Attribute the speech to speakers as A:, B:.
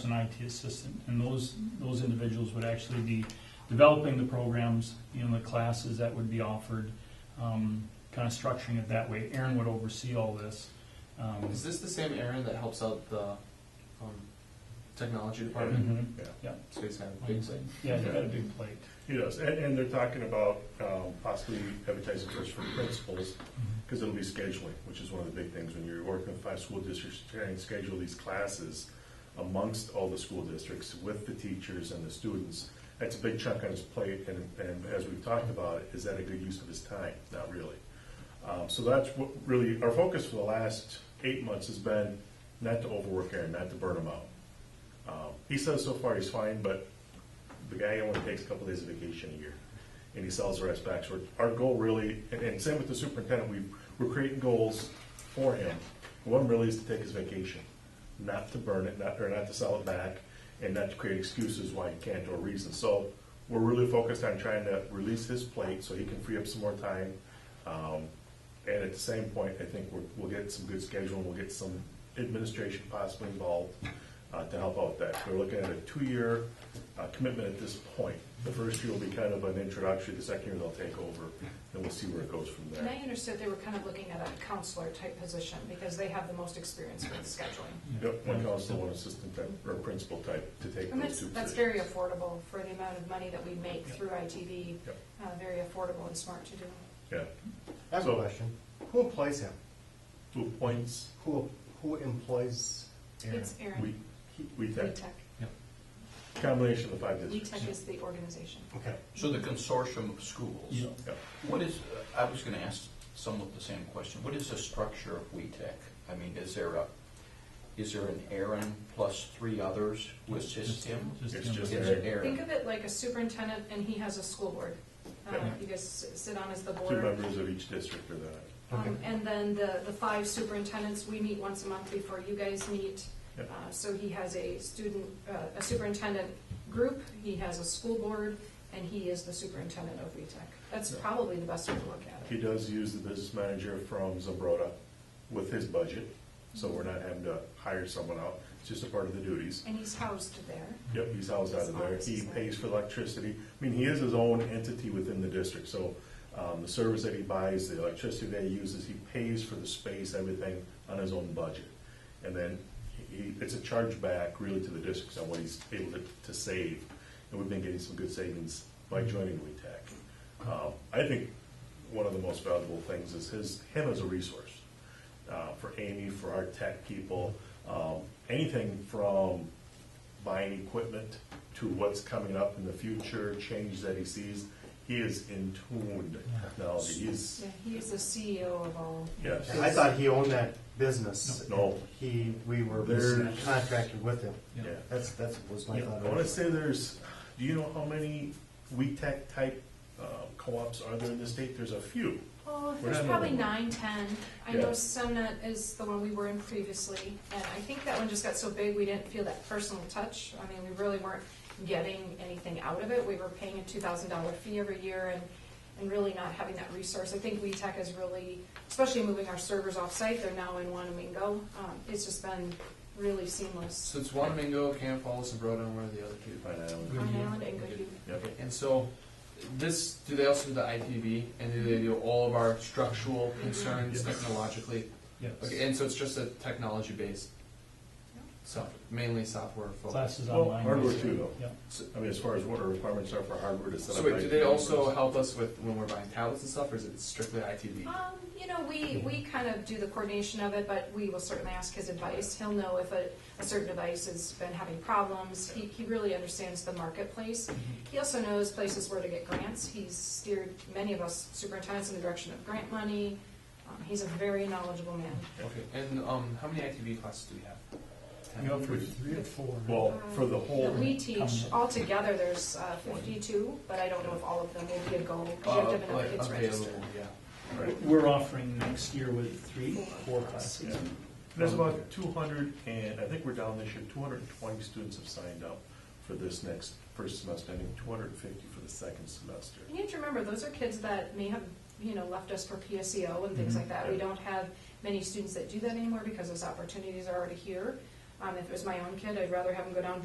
A: an IT assistant, and those, those individuals would actually be developing the programs, you know, the classes that would be offered, um, kind of structuring it that way. Aaron would oversee all this. Um,
B: Is this the same Aaron that helps out the um, technology department?
A: mhm.
C: Mm-hmm.
B: So he's got a big thing.
A: Yeah, you got a big plate.
C: He does, and, and they're talking about um, possibly advertising first for principals, because it'll be scheduling, which is one of the big things, when you're working with five school districts, trying to schedule these classes amongst all the school districts, with the teachers and the students, that's a big chunk on his plate, and, and as we've talked about, is that a good use of his time? Not really. Um, So that's what really, our focus for the last eight months has been not to overwork Aaron, not to burn him out. Um, He says so far he's fine, but the guy only takes a couple days of vacation a year, and he sells the rest back. So our our goal really, and, and same with the superintendent, we, we're creating goals for him. One really is to take his vacation, not to burn it, not, or not to sell it back, and not to create excuses why he can't or reasons. So we're really focused on trying to release his plate so he can free up some more time. Um, and at the same point, I think we're, we'll get some good scheduling, we'll get some administration possibly involved uh, to help out with that. We're looking at a two-year uh, commitment at this point. The first year will be kind of an introductory, the second year they'll take over, and we'll see where it goes from
D: And I
C: there.
D: understood they were kind of looking at a counselor type position because they have the most experience with scheduling.
C: Yep, one counselor, one assistant type, or principal type to take
D: And
C: those
D: that's,
C: two
D: that's very
C: positions.
D: affordable for the amount of money that we make
C: Yeah.
D: through ITV,
C: Yep.
D: uh, very affordable and smart to do.
C: Yeah,
E: I have a
C: So-
E: question. Who employs him?
C: two points,
E: Who, who employs Aaron?
D: It's
C: we,
D: Aaron,
C: we tech,
D: WeTech.
C: combination of the five districts.
D: WeTech is the organization.
E: Okay.
F: So the consortium of schools,
A: Yeah.
C: Yep.
F: what is, I was going to ask somewhat the same question. What is the structure of WeTech? I mean, is there a, is there an Aaron plus three others who assist him?
A: Just-
C: It's just
F: It's
A: him.
C: Aaron.
F: Aaron.
D: Think of it like a superintendent and he has a school board. Uh,
C: Yeah.
D: You guys s- sit on as the
C: Two
D: board.
C: members of each district are that.
D: Um,
E: Okay.
D: And then the, the five superintendents, we meet once a month before you guys meet.
C: Yep.
D: Uh, So he has a student, uh, a superintendent group, he has a school board, and he is the superintendent of VTEC. That's probably the best way to look at
C: He
D: it.
C: does use the business manager from Zambroda with his budget, so we're not having to hire someone out. It's just a part of the duties.
D: And he's housed there.
C: Yep, he's housed out of there. He pays for electricity. I mean, he is his own entity within the district, so um, the service that he buys, the electricity that he uses, he pays for the space, everything on his own budget. And then he, it's a chargeback really to the districts on what he's able to, to save. And we've been getting some good savings by joining WeTech. Um, I think one of the most valuable things is his, him as a resource uh, for Amy, for our tech people, um, anything from buying equipment to what's coming up in the future, change that he sees. He is in tune to technology. He's,
D: Yeah, he is the CEO of all.
C: yes.
E: I thought he owned that business.
C: No.
E: He, we were
C: There-
E: contracted with him.
C: Yeah.
E: That's, that's was my
C: Yeah,
E: thought.
C: I want to say there's, do you know how many WeTech type uh, co-ops are there in the state? There's a few.
D: Oh,
C: We're
D: there's
C: not
D: probably
C: moving.
D: nine, ten. I
C: Yeah.
D: know Semnet is the one we were in previously, and I think that one just got so big, we didn't feel that personal touch. I mean, we really weren't getting anything out of it. We were paying a two thousand dollar fee every year and, and really not having that resource. I think WeTech is really, especially moving our servers off-site, they're now in Wanamingo. Um, it's just been really seamless.
B: So it's Wanamingo, Camp Falls, and Broden, where are the other two?
C: Right now.
D: Pine Island and Goodhue.
C: Yep.
B: And so this, do they also do the IPV and do they do all of our structural concerns
C: Yes.
B: technologically?
A: Yes.
B: Okay, and so it's just a technology based, so mainly software focused.
A: Classes
C: Well,
A: online.
C: hardware too, though.
A: Yeah.
C: I mean, as far as what our requirements are for hardware to set
B: So
C: up.
B: wait, do they
C: IT
B: also
C: servers.
B: help us with when we're buying tablets and stuff, or is it strictly ITV?
D: Um, you know, we, we kind of do the coordination of it, but we will certainly ask his advice. He'll know if a, a certain device has been having problems. He, he really understands the marketplace. He also knows places where to get grants. He's steered many of us superintendents in the direction of grant money. Um, he's a very knowledgeable man.
B: Okay, and um, how many ITV classes do we have? Ten?
A: You know, for three or four.
C: Well, for the
D: That
C: whole,
D: we teach, altogether, there's uh, fifty-two, but I don't know if all of them will be a goal, because you have to have enough
B: like,
D: kids
B: Uh,
D: registered.
B: available, yeah.
C: right.
A: We're offering next year with three, four
C: Yeah.
A: classes.
C: There's about two hundred and, I think we're down this year, two hundred and twenty students have signed up for this next first semester, I think two hundred and fifty for the second semester.
D: You need to remember, those are kids that may have, you know, left us for PSEO and things like that. We
C: Yeah.
D: don't have many students that do that anymore because those opportunities are already here. Um, if it was my own kid, I'd rather have him go down